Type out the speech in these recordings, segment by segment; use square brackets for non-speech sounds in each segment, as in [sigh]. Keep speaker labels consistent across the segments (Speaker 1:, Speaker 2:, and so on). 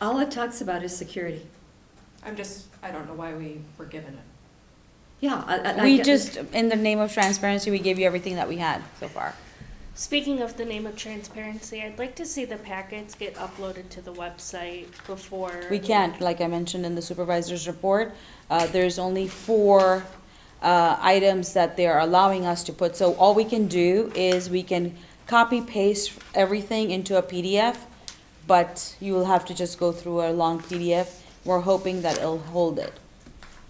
Speaker 1: All it talks about is security.
Speaker 2: I'm just, I don't know why we were given it.
Speaker 1: Yeah. I- I- I
Speaker 3: We
Speaker 1: get-
Speaker 3: just, in the name of transparency, we gave you everything that we had so far.
Speaker 4: Speaking of the name of transparency, I'd like to see the packets get uploaded to the website before.
Speaker 3: We can't, like I mentioned in the supervisor's report, uh, there's only four, uh, items that they're allowing us to put. So all we can do is we can copy paste everything into a PDF, but you will have to just go through a long PDF. We're hoping that it'll hold it.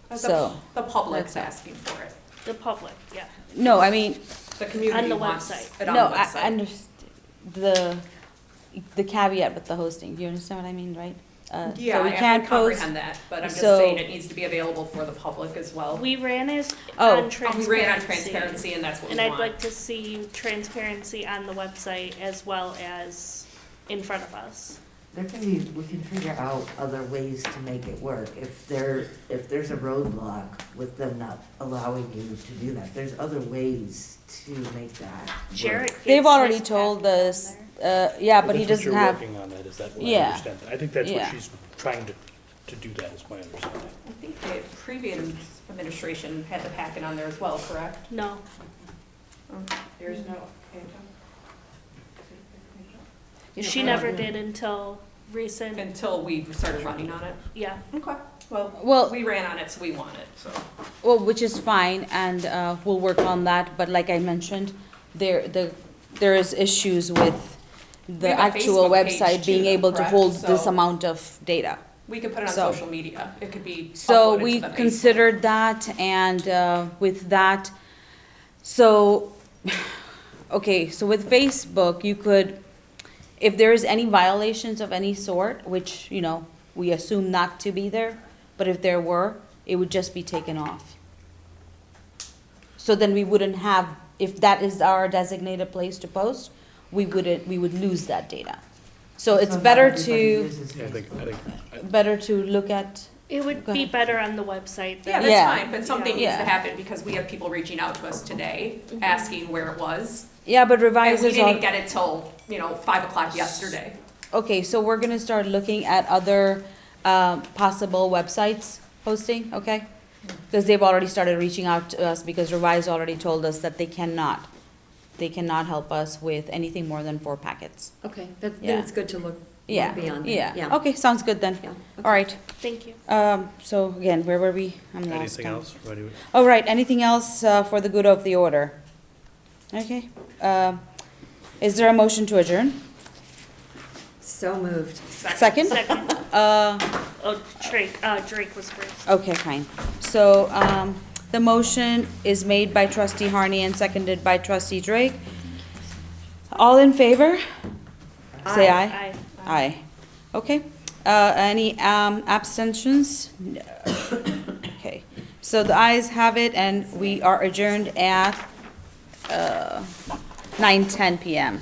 Speaker 2: The-
Speaker 3: So,
Speaker 2: The public's
Speaker 3: that's-
Speaker 2: asking for it.
Speaker 4: The public, yeah.
Speaker 3: No, I mean,
Speaker 2: The community
Speaker 4: the
Speaker 2: wants
Speaker 4: website.
Speaker 2: it on
Speaker 3: no,
Speaker 2: the
Speaker 3: I, I
Speaker 2: website.
Speaker 3: understand, the, the caveat with the hosting, do you understand what I mean, right? Uh, so
Speaker 2: Yeah,
Speaker 3: we
Speaker 2: I- I
Speaker 3: can't post-
Speaker 2: comprehend that, but I'm just
Speaker 3: so-
Speaker 2: saying it needs to be available for the public as well.
Speaker 4: We ran as
Speaker 3: Oh.
Speaker 4: on
Speaker 2: Oh, We
Speaker 4: transparency.
Speaker 2: ran on transparency and that's what we
Speaker 4: And I'd like
Speaker 2: want.
Speaker 4: to see transparency on the website as well as in front of us.
Speaker 5: There can be, we can figure out other ways to make it work. If there, if there's a roadblock with them not allowing you to do that, there's other ways to make that work.
Speaker 4: Jared gets
Speaker 3: They've already
Speaker 4: his
Speaker 3: told
Speaker 4: packet on
Speaker 3: us,
Speaker 4: there.
Speaker 3: uh, yeah, but
Speaker 6: Well,
Speaker 3: he
Speaker 6: that's what
Speaker 3: doesn't have.
Speaker 6: You're working on that, is that what I
Speaker 3: Yeah.
Speaker 6: understand? that. I think that's what
Speaker 3: Yeah.
Speaker 6: she's trying to, to do that, is my understanding.
Speaker 2: I think the previous administration had the packet on there as well, correct?
Speaker 4: No, Mm-hmm.
Speaker 2: There's no.
Speaker 1: you know,
Speaker 4: she
Speaker 1: I
Speaker 4: never
Speaker 1: don't know.
Speaker 4: did until recent,
Speaker 2: Until we started running on it.
Speaker 4: yeah.
Speaker 2: Okay, well,
Speaker 3: Well,
Speaker 2: we ran on it, so we want it, so.
Speaker 3: well, which is fine, and uh, we'll work on that. But like I mentioned, there the there is issues with the
Speaker 2: have a
Speaker 3: actual
Speaker 2: Facebook page
Speaker 3: website being
Speaker 2: too,
Speaker 3: able to
Speaker 2: correct?
Speaker 3: hold this
Speaker 2: So-
Speaker 3: amount of data.
Speaker 2: We could put it on
Speaker 3: So-
Speaker 2: social media. It could be
Speaker 3: So
Speaker 2: uploaded to
Speaker 3: we
Speaker 2: the Facebook.
Speaker 3: considered that, and uh, with that, so, okay, so with Facebook, you could, if there is any violations of any sort, which, you know, we assume not to be there, but if there were, it would just be taken off. So then we wouldn't have, if that is our designated place to post, we wouldn't, we would lose that data. So it's
Speaker 5: not
Speaker 3: better
Speaker 5: everybody
Speaker 3: to,
Speaker 5: uses
Speaker 6: Yeah, I think, I
Speaker 5: Facebook.
Speaker 6: think, I-
Speaker 3: better to look at,
Speaker 4: It would
Speaker 3: Go
Speaker 4: be
Speaker 3: ahead.
Speaker 4: better on the website
Speaker 2: Yeah,
Speaker 4: than
Speaker 3: Yeah.
Speaker 2: that's fine, but something needs to
Speaker 3: Yeah.
Speaker 2: happen because we have people reaching out to us today, asking where it was.
Speaker 3: yeah, but
Speaker 2: And
Speaker 3: revisers
Speaker 2: we
Speaker 3: are.
Speaker 2: didn't get it till, you know, five o'clock yesterday.
Speaker 3: Okay, so we're gonna start looking at other uh, possible websites hosting, okay? Because they've already started reaching out to us because Revise already told us that they cannot, they cannot help us with anything more than four packets.
Speaker 1: Okay, that- then
Speaker 3: Yeah.
Speaker 1: it's good to look
Speaker 3: Yeah,
Speaker 1: look beyond that.
Speaker 3: yeah. Okay, sounds good then.
Speaker 1: Yeah.
Speaker 3: All right,
Speaker 4: Thank you.
Speaker 3: um, so again, where were we? I'm lost
Speaker 6: anything
Speaker 3: now.
Speaker 6: else? Ready?
Speaker 3: All right, anything else uh, for the good of the order? Okay, um, is there a motion to adjourn?
Speaker 1: So moved.
Speaker 3: Second?
Speaker 4: Second,
Speaker 3: [laughs] Uh,
Speaker 4: oh, Drake, uh, Drake was first.
Speaker 3: Okay, fine. So, um, the motion is made by trustee Harney and seconded by trustee Drake. All in favor? Say
Speaker 1: Aye.
Speaker 3: aye.
Speaker 4: Aye.
Speaker 3: Aye. Okay. Uh, any, um, abstentions? No. Okay. So the ayes have it and we are adjourned at, uh, nine ten PM.